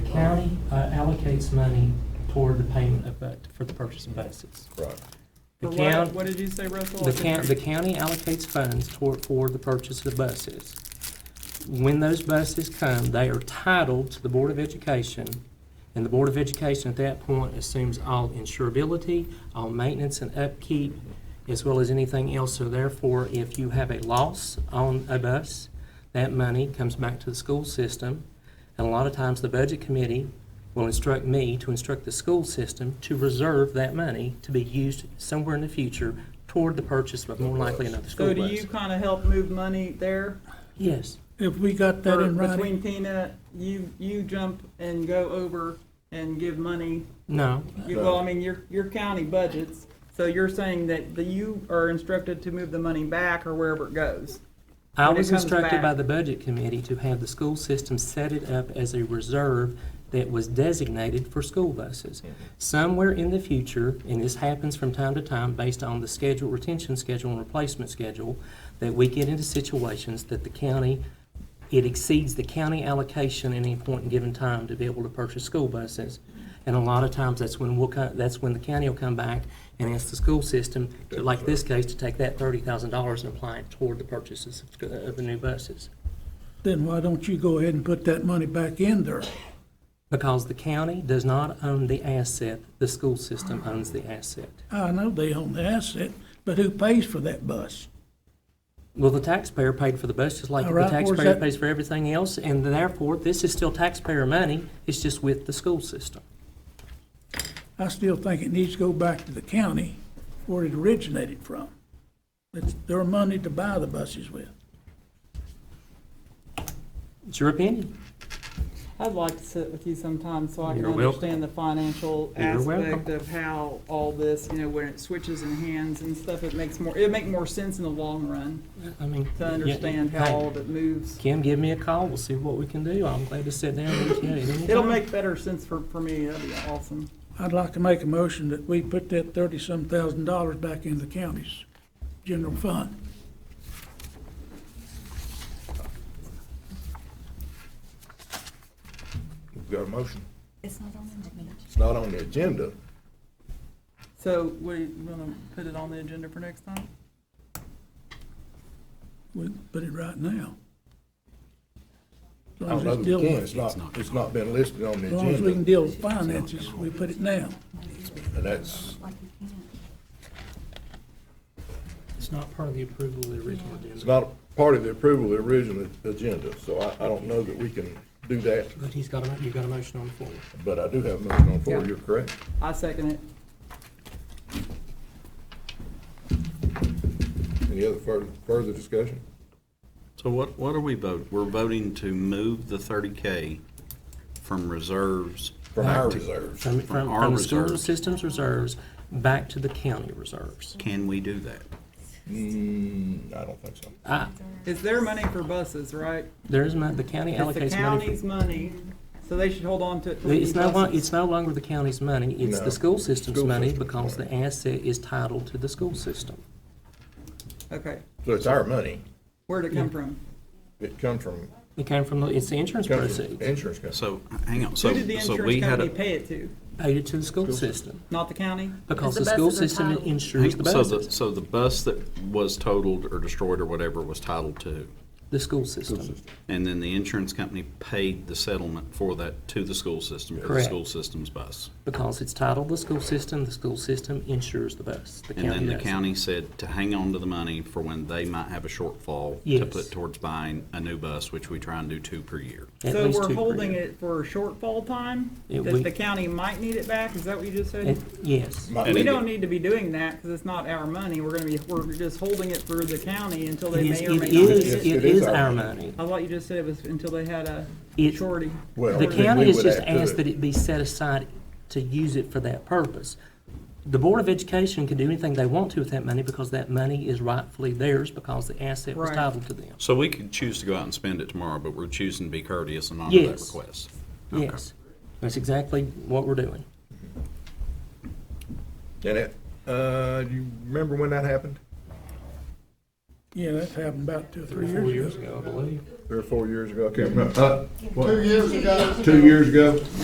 county uh, allocates money toward the payment of, bu- for the purchase of buses. Right. The For county, What, what did you say, Russell? the county, the county allocates funds toward, for the purchase of buses. When those buses come, they are titled to the Board of Education, and the Board of Education at that point assumes all insurability, all maintenance and upkeep, as well as anything else. So therefore, if you have a loss on a bus, that money comes back to the school system. And a lot of times, the Budget Committee will instruct me to instruct the school system to reserve that money to be used somewhere in the future toward the purchase of more likely another So school do you bus. kind of help move money there? Yes. If we got that Or in writing, Between peanut, you, you jump and go over and give money, No, you, well, I mean, your, your county budgets. So you're saying that the, you are instructed to move the money back or wherever it goes? I When it was comes instructed by back. the budget committee to have the school system set it up as a reserve that was designated for school buses. Somewhere in the future, and this happens from time to time based on the schedule, retention schedule and replacement schedule, that we get into situations that the county, it exceeds the county allocation at any point in given time to be able to purchase school buses. And a lot of times, that's when we'll, co- that's when the county will come back and ask the school system, to, like this case, to take that thirty thousand dollars and apply it toward the purchases of- of the new buses. then why don't you go ahead and put that money back in there? Because the county does not own the asset, the school system owns the asset. I know they own the asset, but who pays for that bus? Well, the taxpayer paid for the bus, just like All the right, where's taxpayer that- pays for everything else, and therefore, this is still taxpayer money, it's just with the school system. I still think it needs to go back to the county where it originated from. It's their money to buy the buses with. It's your opinion. I'd like to sit with you sometime so I can You're welcome. understand the financial You're aspect welcome. of how all this, you know, when it switches in hands and stuff, it makes more, it'd make more sense in the long run I mean. to yeah, understand hey, how all of it moves. Kim, give me a call, we'll see what we can do, I'm glad to sit down with you at any It'll time. make better sense for, for me, that'd be awesome. I'd like to make a motion that we put that thirty-some thousand dollars back in the county's general fund. We've got a motion. It's not on the agenda. It's not on the agenda. So we wanna put it on the agenda for next time? We can put it right now. As long as I don't it's know that dealing we can. with- It's not, it's not been listed on the As long as we can agenda. deal with finances, we put it now. And that's, Like we can't. It's not part of the approval of the original it's agenda, not part of the approval of the original agenda, so I, I don't know that we can do that, but he's got, a you've got a motion on the floor. but I do have a motion on the floor, Yeah. you're correct. I second it. Any other further, further discussion? So what, what are we voting? We're voting to move the thirty K from reserves. From back our to- reserves. From, From from, our from the school reserves. system's reserves back to the county reserves. Can we do that? Mm, I don't think so. I, It's their money for buses, right? there is mon, the county It's allocates money. the county's money, so they should hold on to it. for- till we It's need no, lo- buses. it's no longer the county's money, it's No. the school system's School money system's because money. the asset is titled to the school system. Okay, So it's our money. where'd it come from? It come from, It came from, the it's the insurance come from proceeds, insurance company. So, hang on, Who so, did the so we insurance had company a. pay it to? paid it to the school system, Not the county? because the the school buses are system titled. insures the So the, buses, so the bus that was totaled or destroyed or whatever was titled to, the school system. and then the insurance company paid the settlement for that to the school system, for the Correct. school system's bus. Because it's titled the school system, the school system insures the bus, the county And doesn't. then the county said to hang on to the money for when they might have a shortfall Yes. to put towards buying a new bus, which we try and do two per year. At So least two we're per holding year. it for shortfall time? It- That we- the county might need it back, is that what you just It- said? Yes. Might We need to- don't need to be doing that, because it's not our money, we're gonna be, we're just holding it for the county until they It is, may or it may is, not. use Yes, it. it is our money. I thought you just said it was until they had a It's- shorty. Well, The we- shortage. county we has would just add to asked that it be set aside to use it for that purpose. The Board of Education can do anything they want to with that money because that money is rightfully theirs because the asset was Right. titled to them. So we could choose to go out and spend it tomorrow, but we're choosing to be courteous and honor that Yes. request. Okay. Yes, that's exactly what we're doing. And it, uh, do you remember when that happened? Yeah, that's happened about two or three years ago. ago, I believe. Three or four years ago, I can't remember. Uh, what, Two years ago, Two years ago?